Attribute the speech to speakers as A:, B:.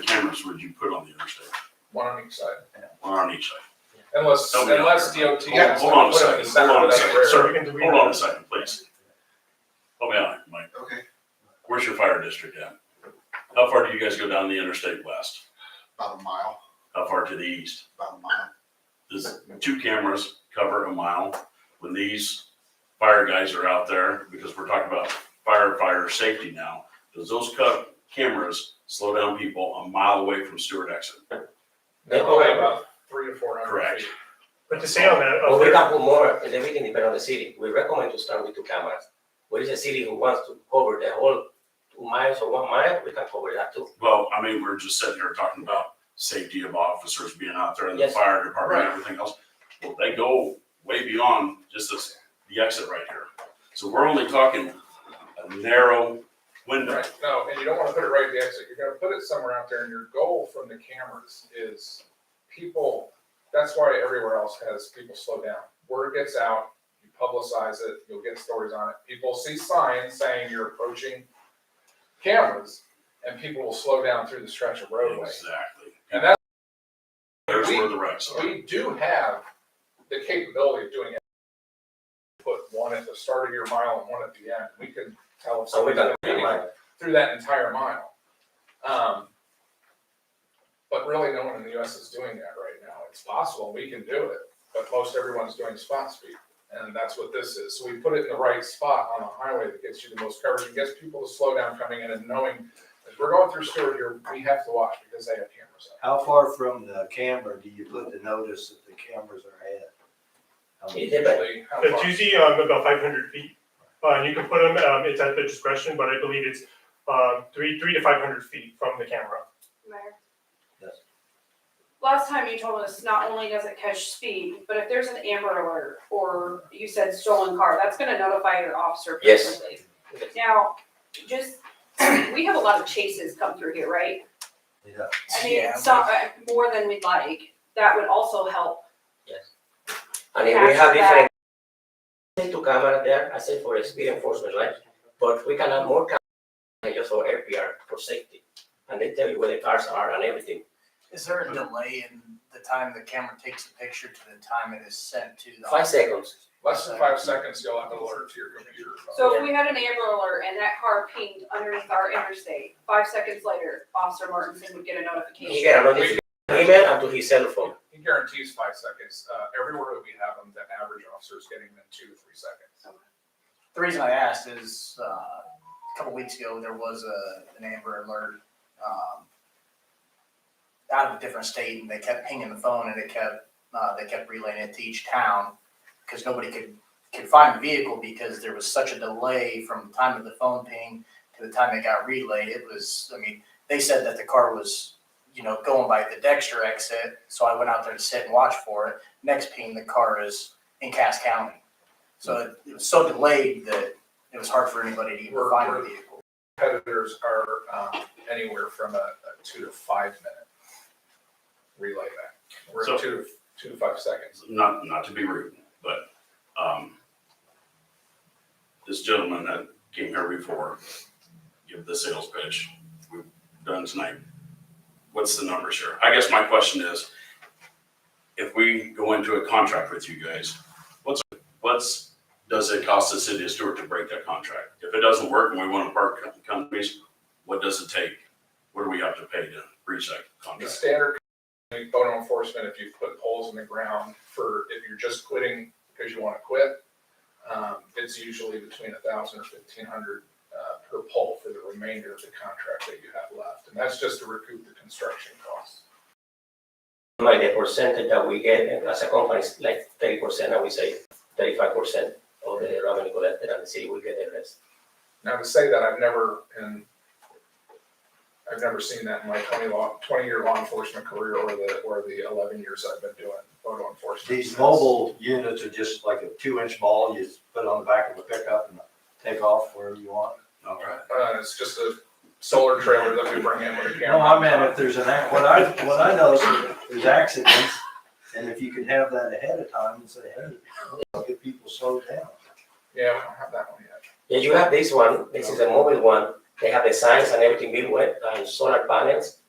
A: the cameras would you put on the interstate,
B: one on each side,
A: one on each side?
B: unless,
A: Don't be-
B: unless DOT.
A: Oh, Hold- Hold on a second, hold on a second,
B: That's rare.
A: sir, hold on a second, please. Help me out, here, Mike,
C: Okay,
A: where's your fire district at? How far do you guys go down the interstate west?
C: about a mile,
A: How far to the east?
C: about a mile.
A: Does two cameras cover a mile when these fire guys are out there? Because we're talking about firefighter safety now. Does those co- cameras slow down people a mile away from Stewart exit?
B: They're probably about three to four hundred.
A: Correct.
B: feet.
D: But to say on that,
E: But
D: oh,
E: we
D: there-
E: can put more, because everything depends on the city. We recommend to start with two cameras. What is a city who wants to cover the whole two miles or one mile, we can cover that too.
A: Well, I mean, we're just sitting here talking about safety of officers being out there and the
E: Yes.
A: fire department and
B: Right.
A: everything else. Well, they go way beyond just this, the exit right here. So we're only talking a narrow window.
B: Right, no, and you don't wanna put it right at the exit, you're gonna put it somewhere out there, and your goal from the cameras is people, that's why everywhere else has people slow down. Word gets out, you publicize it, you'll get stories on it, people see signs saying you're approaching cameras, and people will slow down through the stretch of roadway.
A: Exactly.
B: And that's,
A: There's
B: we-
A: where the wrecks are.
B: we do have the capability of doing it. Put one at the start of your mile and one at the end, we can tell if
E: So we
B: somebody's
E: can.
B: meeting through that entire mile. Um, but really, no one in the U.S. is doing that right now. It's possible we can do it, but most everyone's doing spot speed, and that's what this is. So we put it in the right spot on the highway that gets you the most coverage and gets people to slow down coming in and knowing as we're going through Stewart here, we have to watch because they have cameras. up.
F: How far from the camera do you put the notice that the cameras are Um, at?
E: It depends.
B: Usually, how
D: it's
B: far-
D: usually um, about five hundred feet. Uh, and you can put them, um, it's at the discretion, but I believe it's, um, three, three to five hundred feet from the camera.
G: Mayor?
F: Yes.
G: Last time you told us, not only does it catch speed, but if there's an Amber Alert or you said stolen car, that's gonna notify your officer pretty
E: Yes.
G: quickly. Now, just, we have a lot of chases come through here, right?
F: Yeah.
G: I mean,
E: Yeah.
G: so, uh, more than we'd like, that would also help.
E: And if we have
G: Capture
E: different. Two camera there, I said for speed enforcement, right? But we can have more cameras, just for LPR, for safety. And they tell you where the cars are and everything.
H: Is there a delay in the time the camera takes the picture to the time it is sent to the?
E: Five seconds.
B: less than five seconds, you'll have an alert to your computer.
G: So if we had an Amber Alert and that car pinged underneath our interstate, five seconds later, Officer Martinson would get a
E: He
G: notification.
E: get a notification, email and to his cell phone.
B: He guarantees five seconds. Uh, everywhere that we have them, the average officer is getting them two to three seconds.
H: The reason I asked is, uh, a couple weeks ago, there was a, an Amber Alert, um, out of a different state and they kept pinging the phone and they kept, uh, they kept relaying it to each town because nobody could, could find the vehicle because there was such a delay from the time of the phone ping to the time it got relayed. It was, I mean, they said that the car was, you know, going by the Dexter exit. So I went out there to sit and watch for it. Next ping, the car is in Cass County. So it- it was so delayed that it was hard for anybody to even
B: We're-
H: find
B: we're-
H: the vehicle.
B: Competitors are um, anywhere from a, a two to five minute relay back. We're
A: So-
B: at two to two to five seconds.
A: not, not to be rude, but, um, this gentleman that came here before, give the sales pitch, we've done tonight. What's the numbers here? I guess my question is, if we go into a contract with you guys, what's, what's, does it cost the city of Stewart to break that contract? If it doesn't work and we want to part com- companies, what does it take? What do we have to pay to breach that
B: The
A: contract?
B: standard photo enforcement, if you put poles in the ground for, if you're just quitting because you want to quit, um, it's usually between a thousand or fifteen hundred uh, per pole for the remainder of the contract that you have left. And that's just to recoup the construction costs.
E: Like the percentage that we get and as a company is like thirty percent, and we say thirty-five percent of the revenue collected, and the city will get the rest.
B: Now to say that, I've never, and I've never seen that in my twenty law, twenty-year law enforcement career or the, or the eleven years I've been doing photo enforcement.
F: These mobile units are just like a two inch ball, you just put it on the back of a pickup and take off wherever you want.
A: All right.
B: Uh, it's just a solar trailer that we bring in with a camera.
F: No, I meant if there's an, ac- what I, what I notice, is there's accidents, and if you could have that ahead of time and say, hey, look, get people slowed down.
B: Yeah, we don't have that one yet.
E: Yeah, you have this one, this is a mobile one, they have the signs and everything built with, and uh, solar panels,